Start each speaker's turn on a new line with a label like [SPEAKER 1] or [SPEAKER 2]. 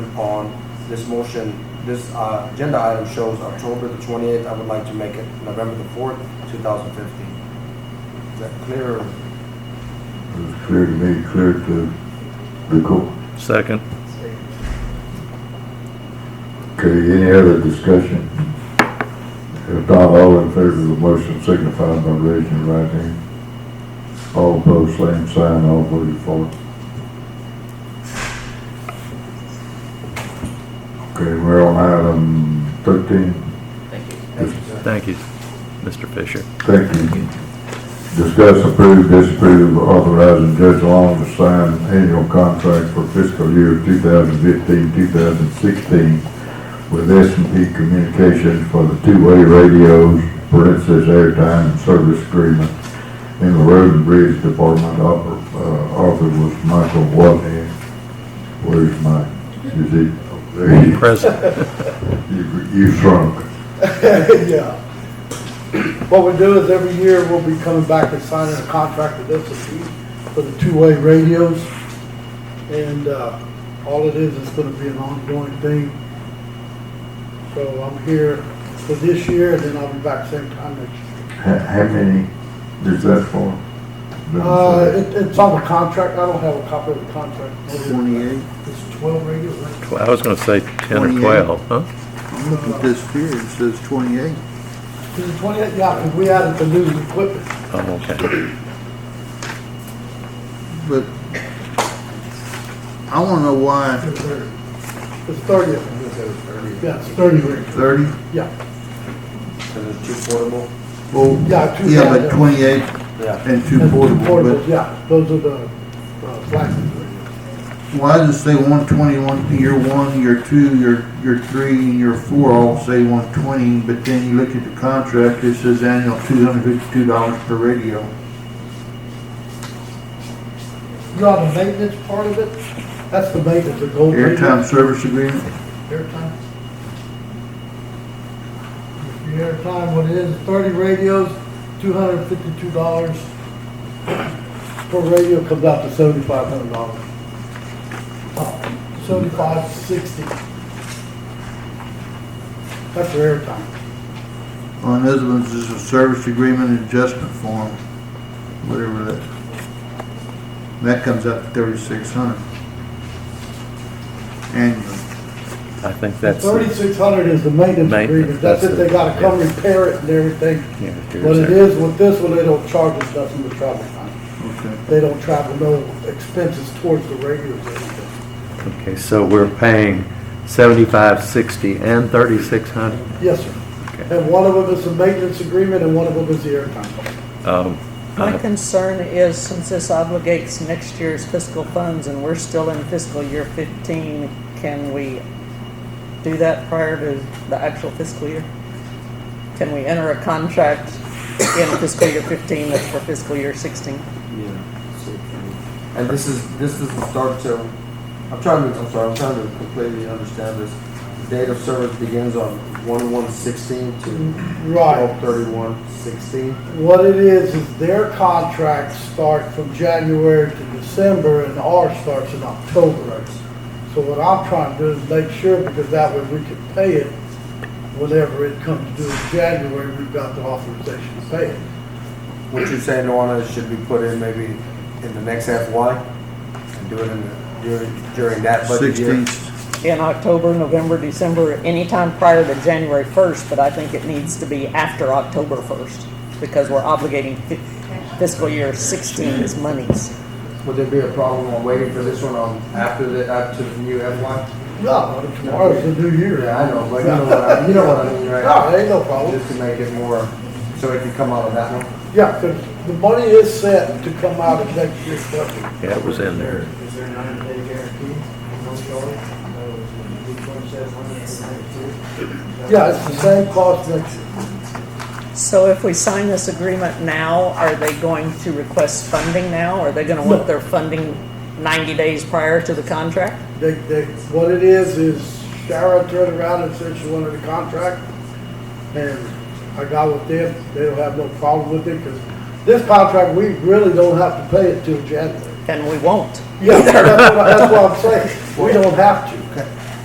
[SPEAKER 1] upon. This motion, this uh, agenda item shows October the 28th. I would like to make it November the 4th, 2015. Is that clear?
[SPEAKER 2] It's clear to me, clear to the court.
[SPEAKER 3] Second.
[SPEAKER 2] Okay, any other discussion? If not, all in favor of the motion signify by raising your right hand. All opposed, same sign, all voted for. Okay, we're on item thirteen.
[SPEAKER 4] Thank you.
[SPEAKER 1] Thank you, sir.
[SPEAKER 3] Thank you, Mr. Fisher.
[SPEAKER 2] Thank you. Discuss, approve, disapprove, authorizing Judge Long to sign annual contract for fiscal year 2015, 2016 with s and P Communications for the two-way radios, parentheses, airtime and service agreement in the Road and Bridge Department. Author uh, author was Michael Watney. Where's Mike? Is he? oh, there he is.
[SPEAKER 3] Present.
[SPEAKER 2] You- You shrunk.
[SPEAKER 5] Yeah. What we do is every year, we'll be coming back and signing a contract with S&P for the two-way radios. And uh, all it is, is gonna be an ongoing thing. So I'm here for this year, and then I'll be back same time next year.
[SPEAKER 2] How, how many is that for?
[SPEAKER 5] Uh, it- It's on the contract, I don't have a copy of the contract.
[SPEAKER 6] Twenty-eight,
[SPEAKER 5] It's 12 radios, right?
[SPEAKER 3] I was gonna say ten or
[SPEAKER 6] Twenty-eight.
[SPEAKER 3] twelve, huh?
[SPEAKER 6] I'm looking at this here, it says twenty-eight.
[SPEAKER 5] Is it 28? Yeah, 'cause we added the new equipment.
[SPEAKER 3] Oh, okay.
[SPEAKER 6] But I wanna know why
[SPEAKER 5] It's 30. It's 30 of them. Yeah, it's 30 radios,
[SPEAKER 6] thirty?
[SPEAKER 5] yeah.
[SPEAKER 1] Because it's too portable.
[SPEAKER 6] Well,
[SPEAKER 5] Yeah, two
[SPEAKER 6] yeah,
[SPEAKER 5] thousand.
[SPEAKER 6] but twenty-eight
[SPEAKER 1] Yeah.
[SPEAKER 6] and two
[SPEAKER 5] And
[SPEAKER 6] portable,
[SPEAKER 5] portables,
[SPEAKER 6] but
[SPEAKER 5] Yeah, those are the uh, flaxes.
[SPEAKER 6] why does it say one twenty, one, year one, year two, year, year three, and year four all say one twenty, but then you look at the contract, it says annual two hundred fifty-two dollars per radio.
[SPEAKER 5] You're on the maintenance part of it? That's the maintenance, the gold. leaf.
[SPEAKER 6] Airtime service agreement,
[SPEAKER 5] Airtime. If Your airtime, what it is, thirty radios, two hundred and fifty-two dollars. Per radio comes out to seventy-five hundred dollars. Seventy-five, sixty. That's your airtime.
[SPEAKER 6] on this one, this is a service agreement adjustment form, whatever that. That comes up to thirty-six hundred. Annually.
[SPEAKER 3] I think that's.
[SPEAKER 5] Thirty-six hundred is the maintenance
[SPEAKER 3] Maintenance,
[SPEAKER 5] agreement, that's
[SPEAKER 3] that's
[SPEAKER 5] if they
[SPEAKER 3] it,
[SPEAKER 5] gotta come
[SPEAKER 3] yeah.
[SPEAKER 5] repair it and everything.
[SPEAKER 3] Yeah, here's
[SPEAKER 5] But it
[SPEAKER 3] there.
[SPEAKER 5] is, with this one, they don't charge us nothing to travel time.
[SPEAKER 6] Okay.
[SPEAKER 5] They don't travel no expenses towards the radios or anything.
[SPEAKER 3] Okay, so we're paying seventy-five, sixty, and thirty-six hundred?
[SPEAKER 5] Yes, sir.
[SPEAKER 3] Okay.
[SPEAKER 5] And one of them is the maintenance agreement and one of them is the airtime.
[SPEAKER 3] Um,
[SPEAKER 7] My
[SPEAKER 3] I-
[SPEAKER 7] concern is, since this obligates next year's fiscal funds and we're still in fiscal year 15, can we do that prior to the actual fiscal year? Can we enter a contract in fiscal year 15 that's for fiscal year 16?
[SPEAKER 1] Yeah. So, And this is, this is the start to, I'm trying to, I'm sorry, I'm trying to completely understand this. The Date of service begins on 1/1/16 to
[SPEAKER 5] Right.
[SPEAKER 1] 12/31/16.
[SPEAKER 5] What it is, is their contracts start from January to December and ours starts in October. So what I'm trying to do is make sure, because that way we can pay it whenever it comes due in January, we've got the authorization to pay it.
[SPEAKER 1] What you're saying, Luana, is should be put in maybe in the next FY and do it in, the- during, during that budget year?
[SPEAKER 6] Sixteen,
[SPEAKER 7] In October, November, December, anytime prior to January 1st, but I think it needs to be after October 1st because we're obligating fi- fiscal year 16's monies.
[SPEAKER 1] Would there be a problem on waiting for this one on after the, after the new FY?
[SPEAKER 5] No, tomorrow's the new year.
[SPEAKER 1] Yeah, I know, but you know what I, you know what I mean,
[SPEAKER 5] No,
[SPEAKER 1] right?
[SPEAKER 5] it ain't no problem.
[SPEAKER 1] Just to make it more, so it can come out of that one?
[SPEAKER 5] Yeah, 'cause the money is set to come out of next year's budget.
[SPEAKER 3] Yeah, it was in there.
[SPEAKER 8] Is there a ninety-day guarantee on those dollars? No, each one says one year,
[SPEAKER 5] Yeah, it's the same cost next year.
[SPEAKER 7] So if we sign this agreement now, are they going to request funding now? Are they gonna want their funding 90 days prior to the contract?
[SPEAKER 5] They, they, what it is, is Shara turned around and said she wanted a contract, and I got with them, they don't have no problem with it, because this contract, we really don't have to pay it till January.
[SPEAKER 7] And we won't.
[SPEAKER 5] Yeah, that's what, I- that's what I'm saying, we don't have to.